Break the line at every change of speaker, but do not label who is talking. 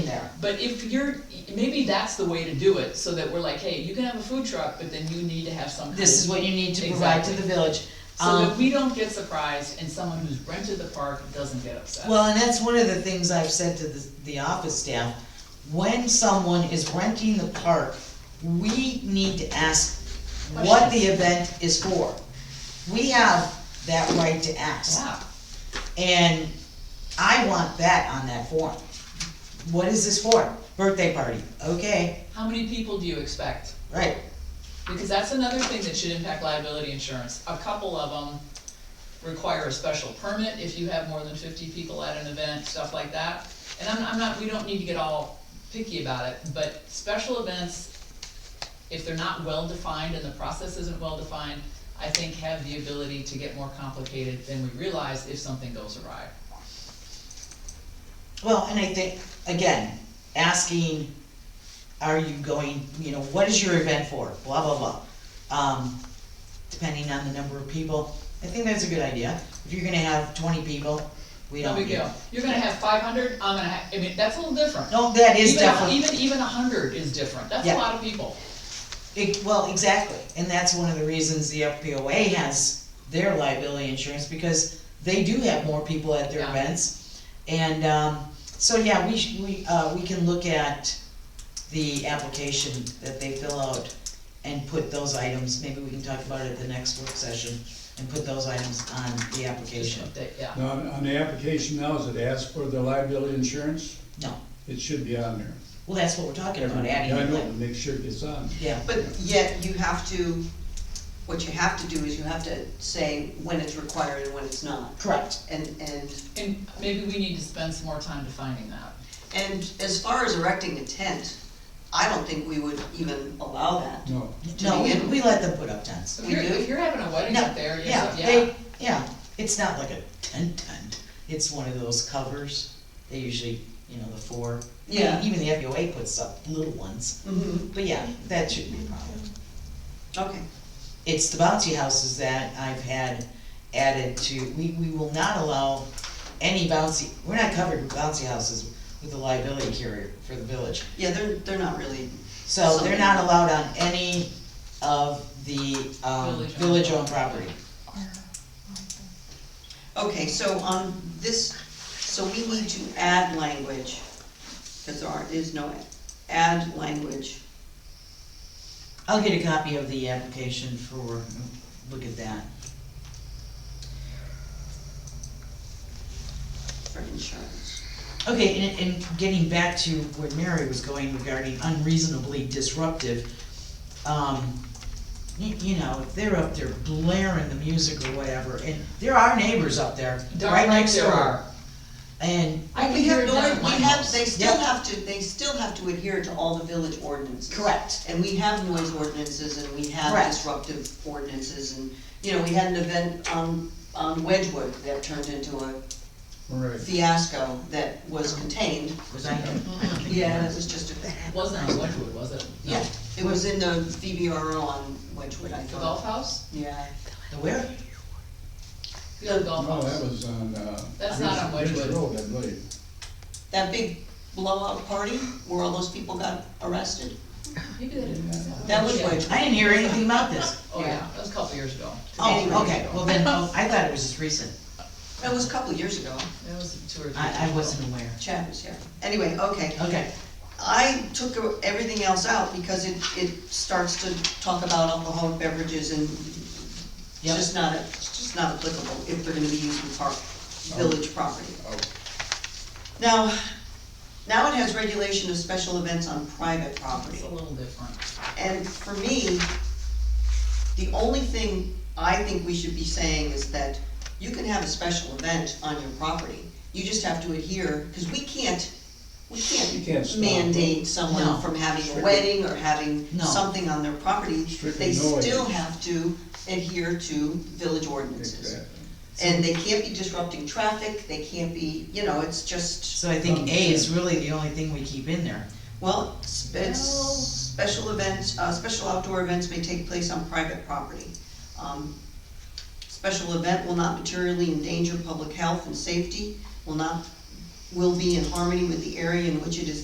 yeah.
But if you're, maybe that's the way to do it, so that we're like, hey, you can have a food truck, but then you need to have some.
This is what you need to provide to the village.
So
Um,
that we don't get surprised and someone who's rented the park doesn't get upset.
Well, and that's one of the things I've said to the, the office staff. When someone is renting the park, we need to ask what the event is for. We have that right to ask,
Yeah,
and I want that on that form. What is this for? Birthday party, okay,
how many people do you expect?
right,
Because that's another thing that should impact liability insurance. A couple of them require a special permit if you have more than fifty people at an event, stuff like that. And I'm, I'm not, we don't need to get all picky about it, but special events, if they're not well-defined and the process isn't well-defined, I think have the ability to get more complicated than we realize if something goes awry.
Well, and I think, again, asking, are you going, you know, what is your event for, blah, blah, blah. Um, depending on the number of people, I think that's a good idea. If you're gonna have twenty people, we
No
don't.
big
need-
deal. You're gonna have five hundred, I'm gonna have, I mean, that's a little different.
No, that is
Even a-
definitely,
Even, even a hundred is different. That's a
Yeah.
lot of people.
it- well, exactly, and that's one of the reasons the FPOA has their liability insurance, because they do have more people at their
Yeah.
events. And, um, so, yeah, we, sh- we, uh, we can look at the application that they fill out and put those items, maybe we can talk about it at the next work session, and put those items on the
Just
application.
update, Yeah.
Now, on on the application now, is it asked for the liability insurance?
No,
It should be on there.
well, that's what we're talking about, adding
Yeah, I
it,
know,
like,
to make sure it gets on.
yeah,
But yet you have to, what you have to do is you have to say when it's required and when it's not.
correct.
And, and,
And maybe we need to spend some more time defining that.
and as far as erecting a tent, I don't think we would even allow that.
No,
No, we,
begin
we let them put up tents.
So if
We
you're,
do?
if you're having a wedding
No,
up there, you're,
Yeah,
so- yeah,
they, yeah, it's not like a tent tent, it's one of those covers, they usually, you know, the four.
Yeah.
Even the FUA puts up little ones,
Mm-hmm.
but yeah, that shouldn't be a problem.
Okay,
It's the bouncy houses that I've had added to, we, we will not allow any bouncy, we're not covered with bouncy houses with the liability carrier for the village.
yeah, they're, they're not really,
So they're not allowed on any of the, um,
Village-owned
village-owned property.
okay, so on this, so we need to add language, because there aren't, is no, add language.
I'll get a copy of the application for, look at that.
for insurance.
Okay, and, and getting back to where Mary was going regarding unreasonably disruptive, um, you, you know, if they're up there blaring the music or whatever, and there are neighbors up there,
Darn
right
right
next
there
door.
are.
And,
I can
We
hear
have
it
no,
down at my
we have,
house.
they still
Yep.
have to, they still have to adhere to all the village ordinances.
correct,
And we have noise ordinances and we have
Correct.
disruptive ordinances and, you know, we had an event on, on Wedgewood that turned into a
all right.
fiasco that was contained.
was I, I don't think it
Yeah, it
was.
was just a,
It Wasn't on Wedgewood, was it? No.
yeah, it was in the VBRO on Wedgewood, I
The golf
thought.
house?
Yeah,
The where?
The other golf
No, that
house.
was on, uh.
That's not on
Ridge- Ridge
Wedgewood.
Road, I believe.
that big blowout party where all those people got arrested,
Maybe they didn't.
Yeah.
that was
Yeah.
Wedgewood.
I didn't hear anything about this.
Oh, yeah, that was a couple years ago.
Oh, okay, well then, oh, I thought it was just recent,
That was a couple years ago,
That was two or three.
I, I
years
wasn't aware.
Chad was here. Anyway, okay.
Okay,
I took everything else out because it, it starts to talk about alcoholic beverages and it's
Yep.
just not, it's just not applicable if they're gonna be used in park, village property.
Oh,
Now, now it has regulation of special events on private
ago.
property.
It's a little different.
And for me, the only thing I think we should be saying is that you can have a special event on your property. You just have to adhere, because we can't, we
You can't
can't
stop.
mandate someone
No.
from having a
Strictly.
wedding or having
No.
something on their property. They
Strictly noise.
still have to adhere to village ordinances.
exactly.
And they can't be disrupting traffic, they can't be, you know, it's just,
so I think A is really the only thing we keep in there.
well, it's, it's
Well-
special events, uh, special outdoor events may take place on private property. Um, Special event will not materially endanger public health and safety, will not, will be in harmony with the area in which it is